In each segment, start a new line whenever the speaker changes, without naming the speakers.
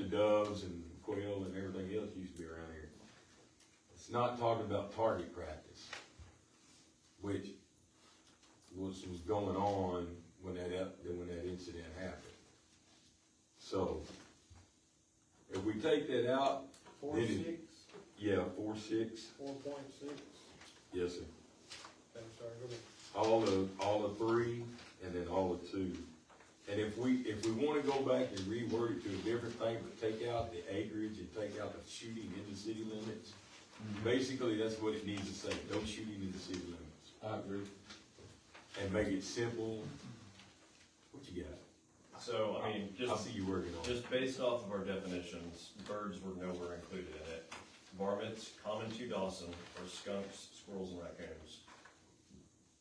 doves and quail and everything else used to be around here. It's not talking about target practice, which was, was going on when that, ep- when that incident happened. So, if we take that out,
Four
Did
six,
it- yeah, four, six,
four point six,
yes, sir.
I'm sorry, go ahead.
all of, all of three, and then all of two. And if we, if we wanna go back and reword it to a different thing, but take out the acreage and take out the shooting in the city limits,
Mm-hmm.
basically, that's what it needs to say, no shooting in the city limits.
I agree.
And make it simple. What you got?
So, I mean,
I
just,
see you working on it.
just based off of our definitions, birds were nowhere included in it. Varmints, common to Dawson, are skunks, squirrels, and raccoons.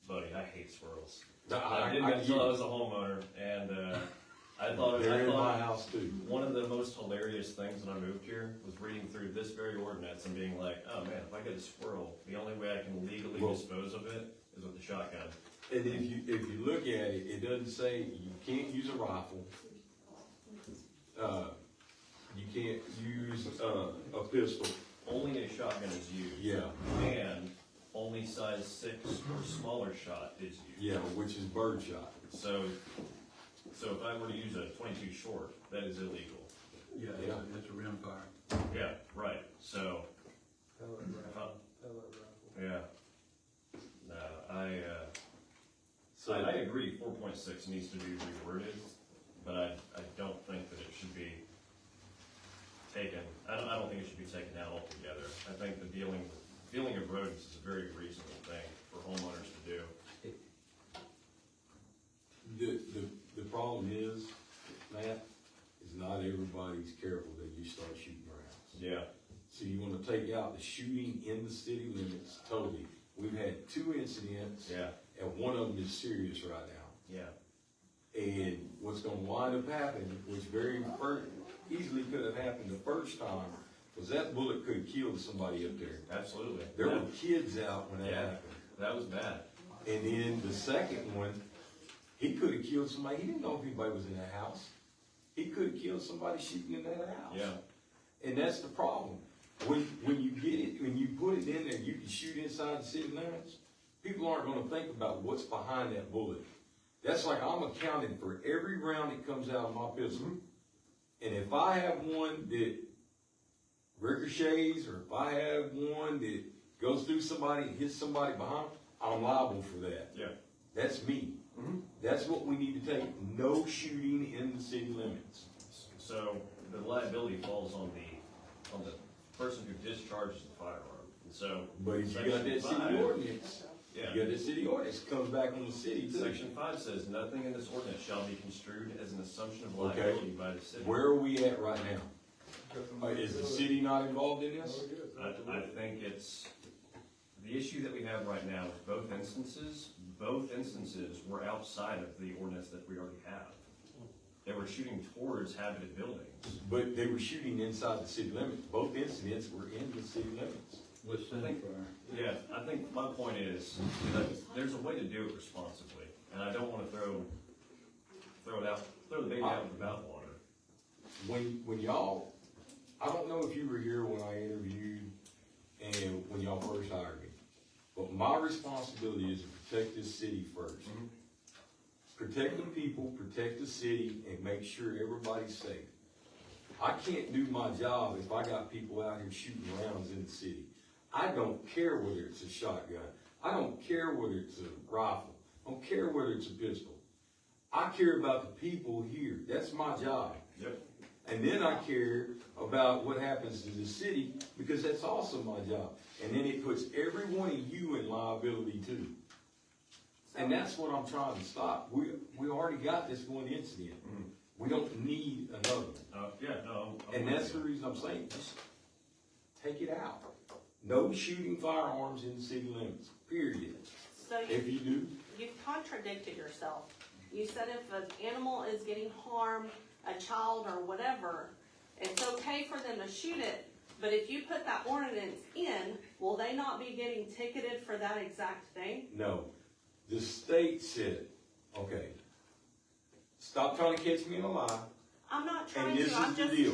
Buddy, I hate squirrels.
No, I-
I did
I
that
get
until I
it.
was a homeowner, and, uh, I thought,
They're
I
in my
thought,
house too.
one of the most hilarious things when I moved here was reading through this very ordinance and being like, oh man, if I get a squirrel, the only way I can legally
Well-
dispose of it is with a shotgun.
And if you, if you look at it, it doesn't say you can't use a rifle. Uh, you can't use, uh, a pistol.
Only a shotgun is used.
Yeah,
And only size six or smaller shot is used.
yeah, which is birdshot.
So, so if I were to use a twenty-two short, that is illegal.
Yeah,
it's a-
it's a rimfire.
Yeah, right, so,
Pellet
uh,
Uh-huh.
rifle, pellet rifle.
yeah. No, I, uh,
So-
I, I agree four point six needs to be reworded, but I, I don't think that it should be taken, I don't, I don't think it should be taken out altogether. I think the dealing, dealing of rodents is a very reasonable thing for homeowners to do.
The, the, the problem is, Matt, is not everybody's careful that you start shooting rounds.
Yeah.
So you wanna take out the shooting in the city limits totally. We've had two incidents,
Yeah,
and one of them is serious right now.
yeah.
And what's gonna wind up happening, which very fir- easily could have happened the first time, was that bullet could have killed somebody up there.
Absolutely.
There
That-
were kids out when that
Yeah.
happened.
That was bad.
And then the second one, he could have killed somebody. He didn't know if anybody was in the house. He could have killed somebody shooting in that house.
Yeah.
And that's the problem. When, when you get it, when you put it in there, you can shoot inside the city limits. People aren't gonna think about what's behind that bullet. That's like I'm accounting for every round that comes out of my pistol. And if I have one that ricochets, or if I have one that goes through somebody and hits somebody behind, I'm liable for that.
Yeah.
That's me.
Mhm.
That's what we need to take. No shooting in the city limits.
So the liability falls on the, on the person who discharges the firearm. And so.
But if you got that
Section
city
five-
ordinance, you
Yeah.
got that city ordinance comes back on the city too.
Section five says, nothing in this ordinance shall be construed as an assumption of
Okay.
liability by the city.
Where are we at right now? Uh, Is the city not involved in
No,
this?
it is.
I, I think it's, the issue that we have right now is both instances, both instances were outside of the ordinance that we already have. They were shooting towards habited buildings.
But they were shooting inside the city limits. Both incidents were in the city limits.
With centerfire.
Yeah, I think my point is, that there's a way to do it responsibly, and I don't wanna throw, throw it out, throw the baby out with the bathwater.
when when y'all, I don't know if you were here when I interviewed and when y'all first hired me, but my responsibility is to protect this city first.
Mhm.
Protect the people, protect the city, and make sure everybody's safe. I can't do my job if I got people out here shooting rounds in the city. I don't care whether it's a shotgun. I don't care whether it's a rifle. I don't care whether it's a pistol. I care about the people here. That's my job.
Yep.
And then I care about what happens to the city because that's also my job. And then it puts every one of you in liability too. And that's what I'm trying to stop. We, we already got this one incident. We don't need another.
Uh, yeah, no. I'm- I'm
And that's the
with
reason I'm saying, just take it out. No shooting firearms in the city limits, period.
So
If
you,
you do,
you've contradicted yourself. You said if an animal is getting harmed, a child or whatever, it's okay for them to shoot it, but if you put that ordinance in, will they not be getting ticketed for that exact thing?
no. The state said, okay, stop trying to catch me in a lie.
I'm not
And
trying
this
to, I'm
is the
just
deal.